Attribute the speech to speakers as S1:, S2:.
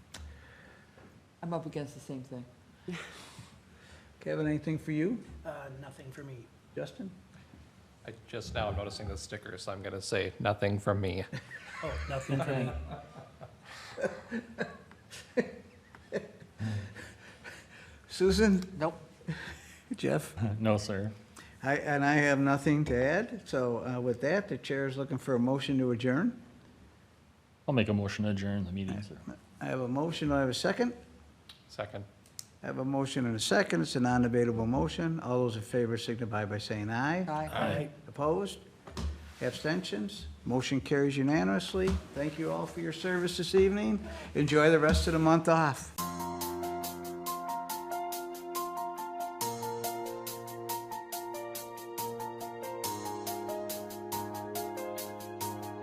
S1: I'm up against the same thing.
S2: Kevin, anything for you?
S3: Uh, nothing for me.
S2: Justin?
S4: I just now am noticing the sticker, so I'm gonna say nothing from me.
S3: Oh, nothing for me.
S2: Susan?
S1: Nope.
S2: Jeff?
S5: No, sir.
S2: I, and I have nothing to add, so uh, with that, the chair is looking for a motion to adjourn.
S5: I'll make a motion to adjourn the meeting, sir.
S2: I have a motion, Do I have a second.
S4: Second.
S2: I have a motion and a second, it's a non-debatable motion. All those in favor signify by saying aye.
S1: Aye.
S3: Aye.
S2: Opposed? Abstentions? Motion carries unanimously. Thank you all for your service this evening. Enjoy the rest of the month off.